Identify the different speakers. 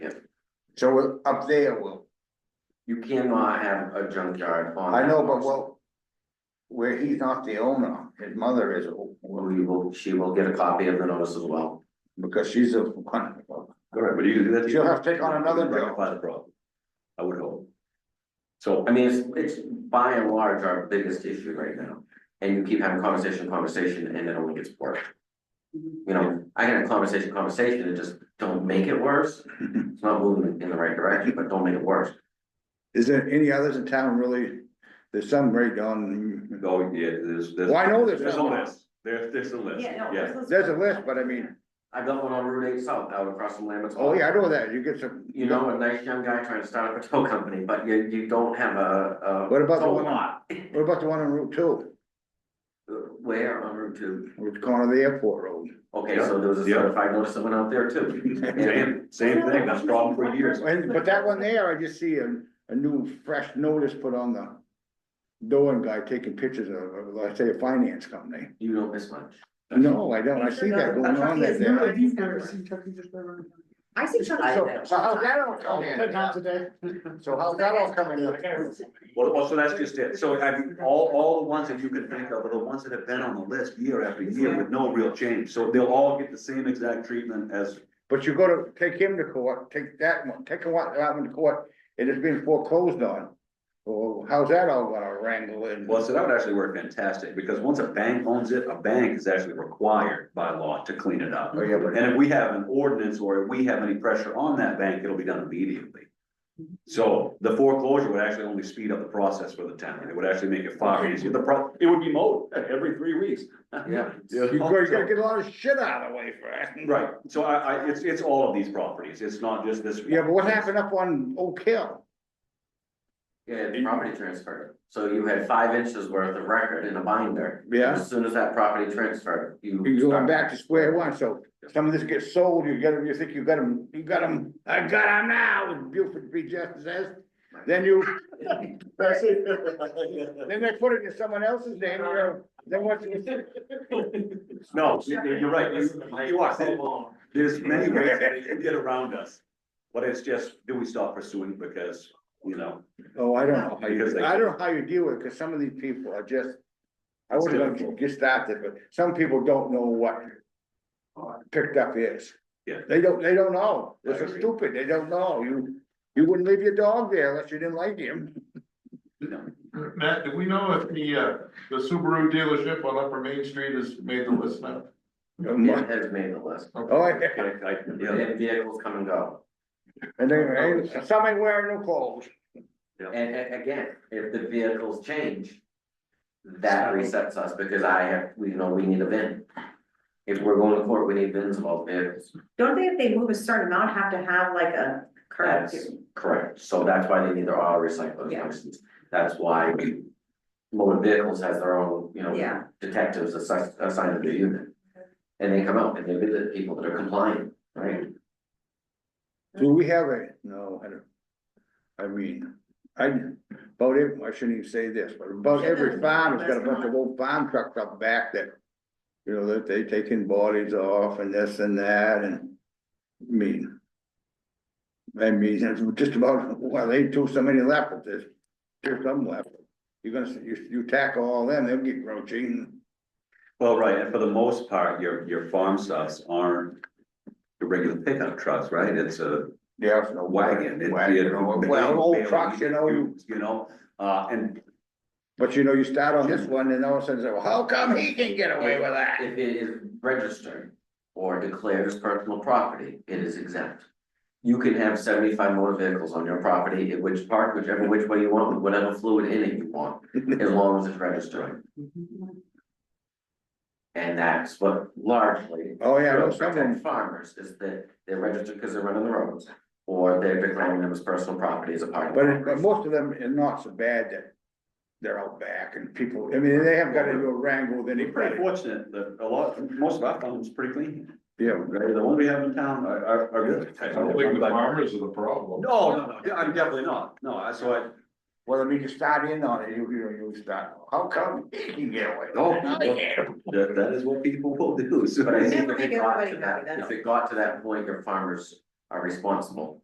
Speaker 1: So up there, Will,
Speaker 2: You cannot have a junkyard on.
Speaker 1: I know, but
Speaker 2: what
Speaker 1: well. Where he's not the owner, his mother is,
Speaker 2: We will, she will get a copy of the notice as well.
Speaker 1: because she's a,
Speaker 3: All right, but you do that.
Speaker 1: She'll have to take on another job.
Speaker 3: Rectify the problem, I would hope. So,
Speaker 2: I mean, it's, it's by and large our biggest issue right now. And you keep having conversation, conversation, and it only gets worse. You know, I can have conversation, conversation, and just don't make it worse. It's not moving in the right direction, but don't make it worse.
Speaker 1: is there any others in town really? There's some right on,
Speaker 3: oh, yeah, there's, there's.
Speaker 1: Well, I know there's
Speaker 3: There's a
Speaker 1: some.
Speaker 3: list, there's, there's a list,
Speaker 4: Yeah, no.
Speaker 3: yeah.
Speaker 4: this is-
Speaker 1: there's a list, but I mean,
Speaker 2: I built one on Route eight south out across from Lambert's.
Speaker 1: oh yeah, I know that, you get some.
Speaker 2: You know, a nice young guy trying to start up a tow company, but you, you don't have a, a.
Speaker 1: What about the
Speaker 2: tow
Speaker 1: one-
Speaker 2: lot.
Speaker 1: What about the one on Route Two,
Speaker 2: Where on Route two?
Speaker 1: which corner of the airport road?
Speaker 2: Okay,
Speaker 3: Yeah,
Speaker 2: so there was a
Speaker 3: yeah.
Speaker 2: certified notice that went out there too. And
Speaker 3: Same, same thing, that's problem for years.
Speaker 1: And, but that one there, I just see a, a new fresh notice put on the. Doan guy taking pictures of, let's say, a finance company.
Speaker 2: you don't miss much.
Speaker 1: No, I don't, I see that going on there.
Speaker 5: Remember,
Speaker 1: there.
Speaker 5: he's never seen Chucky just never.
Speaker 4: I see Chuck E.
Speaker 1: So,
Speaker 4: Cheese.
Speaker 1: so how's that all come in?
Speaker 5: Not today.
Speaker 1: So how's that all coming in?
Speaker 3: Well, well, so that's just it, so have you, all, all the ones that you can think of are the ones that have been on the list year after year with no real change, so they'll all get the same exact treatment as.
Speaker 1: But you gotta take him to court, take that one, take one, that one to court, it is being foreclosed on. Well, how's that all gonna wrangle in?
Speaker 3: Well, so that would actually work fantastic, because once a bank owns it, a bank is actually required by law to clean it up.
Speaker 1: Oh, yeah, but-
Speaker 3: And if we have an ordinance or if we have any pressure on that bank, it'll be done immediately. So the foreclosure would actually only speed up the process for the town. It would actually make it far easier. The pro, it would be mowed every three weeks.
Speaker 2: Yeah.
Speaker 1: You gotta, you gotta get a lot of shit out of the way first.
Speaker 3: Right, so I, I, it's, it's all of these properties. It's not just this. one.
Speaker 1: Yeah, but what happened up on Oak Hill?
Speaker 2: Yeah, the property transferred. So you had five inches worth of record in a binder.
Speaker 1: Yeah.
Speaker 2: As soon as that property transferred, you.
Speaker 1: You're going
Speaker 2: start-
Speaker 1: back to square one, so some of this gets sold, you get 'em, you think you got them, you got them, I got them now, as Buford B. Justice says. Then you, then they put it in someone else's name, you know, then once you
Speaker 3: No, you- you're right. You you are. There's many ways that you can get around us. But it's just, do we stop pursuing because, you know,
Speaker 1: Oh, I don't know how
Speaker 3: Because
Speaker 1: you,
Speaker 3: they-
Speaker 1: I don't know how you deal with it, cause some of these people are just. I would have
Speaker 3: difficult.
Speaker 1: just stopped it, but some people don't know what. Picked up is.
Speaker 3: Yeah.
Speaker 1: They don't, they don't know,
Speaker 3: I
Speaker 1: this is
Speaker 3: agree.
Speaker 1: stupid, they don't know, you, you wouldn't leave your dog there unless you didn't like him.
Speaker 3: you know,
Speaker 5: Matt, do we know if the, uh, the Subaru dealership on Upper Main Street has made the list now?
Speaker 2: It has made the list.
Speaker 1: Oh, yeah,
Speaker 3: I, I, yeah,
Speaker 2: And vehicles come and go.
Speaker 1: and then, and somebody wearing no clothes,
Speaker 2: And, and again, if the vehicles change, that resets us because I have, we know we need a VIN. If we're going to court, we need VINs of all vehicles.
Speaker 4: Don't they, if they move a certain amount, have to have like a current?
Speaker 2: That's correct. So that's why they need their auto recycling
Speaker 4: Yeah.
Speaker 2: license. That's why motor vehicles has their own, you know,
Speaker 4: Yeah,
Speaker 2: detectives assigned, assigned to the unit. And they come out and they visit people that are compliant, right?
Speaker 1: do we have a, no, I don't. I mean, I, about it, I shouldn't even say this, but about every farm has got a bunch of old farm trucks up back that. You know, that they taking bodies off and this and that and, I mean. I mean, it's just about, well, they took so many left with this, there's some left. You're gonna, you, you tackle all them, they'll get roaching.
Speaker 3: well, right, and for the most part, your, your farm stuffs aren't. The regular pickup trucks, right, it's a
Speaker 1: Yeah.
Speaker 3: a wagon. It-
Speaker 1: Wagon,
Speaker 3: it-
Speaker 1: or- well, old trucks, you know, you-
Speaker 3: You know, uh, and
Speaker 1: But you know, you start on this one and all of a sudden, say, well, how come he can get away with that?
Speaker 2: If it is registered or declared as personal property, it is exempt. You can have seventy-five motor vehicles on your property, in which park, whichever which way you want, with whatever fluid in it you want, as long as it's registered. And that's what largely
Speaker 1: Oh, yeah, I know
Speaker 2: Real
Speaker 1: some of them,
Speaker 2: protect farmers is that they're registered because they're running the roads, or they're declaring them as personal property as a part of.
Speaker 1: but it, but most of them are not so bad that they're out back and people, I mean, they haven't got into a wrangle with
Speaker 3: we're pretty
Speaker 1: anybody.
Speaker 3: fortunate that a lot, most of our farms are pretty clean.
Speaker 1: Yeah,
Speaker 3: Right, the ones we have in town are, are, are good.
Speaker 5: I don't think the farmers are the problem.
Speaker 3: No, no, no, yeah, I'm definitely not, no, I, so I,
Speaker 1: well, I mean, you start in on it, you, you, you start, how come he can get away?
Speaker 3: Oh,
Speaker 1: with that? I can't."
Speaker 3: That, that is what people will do, so.
Speaker 2: But I
Speaker 4: Yeah,
Speaker 2: think
Speaker 4: but
Speaker 2: if it
Speaker 4: make
Speaker 2: got
Speaker 4: everybody
Speaker 2: to that,
Speaker 4: happy, that's-
Speaker 2: if it got to that point, your farmers are responsible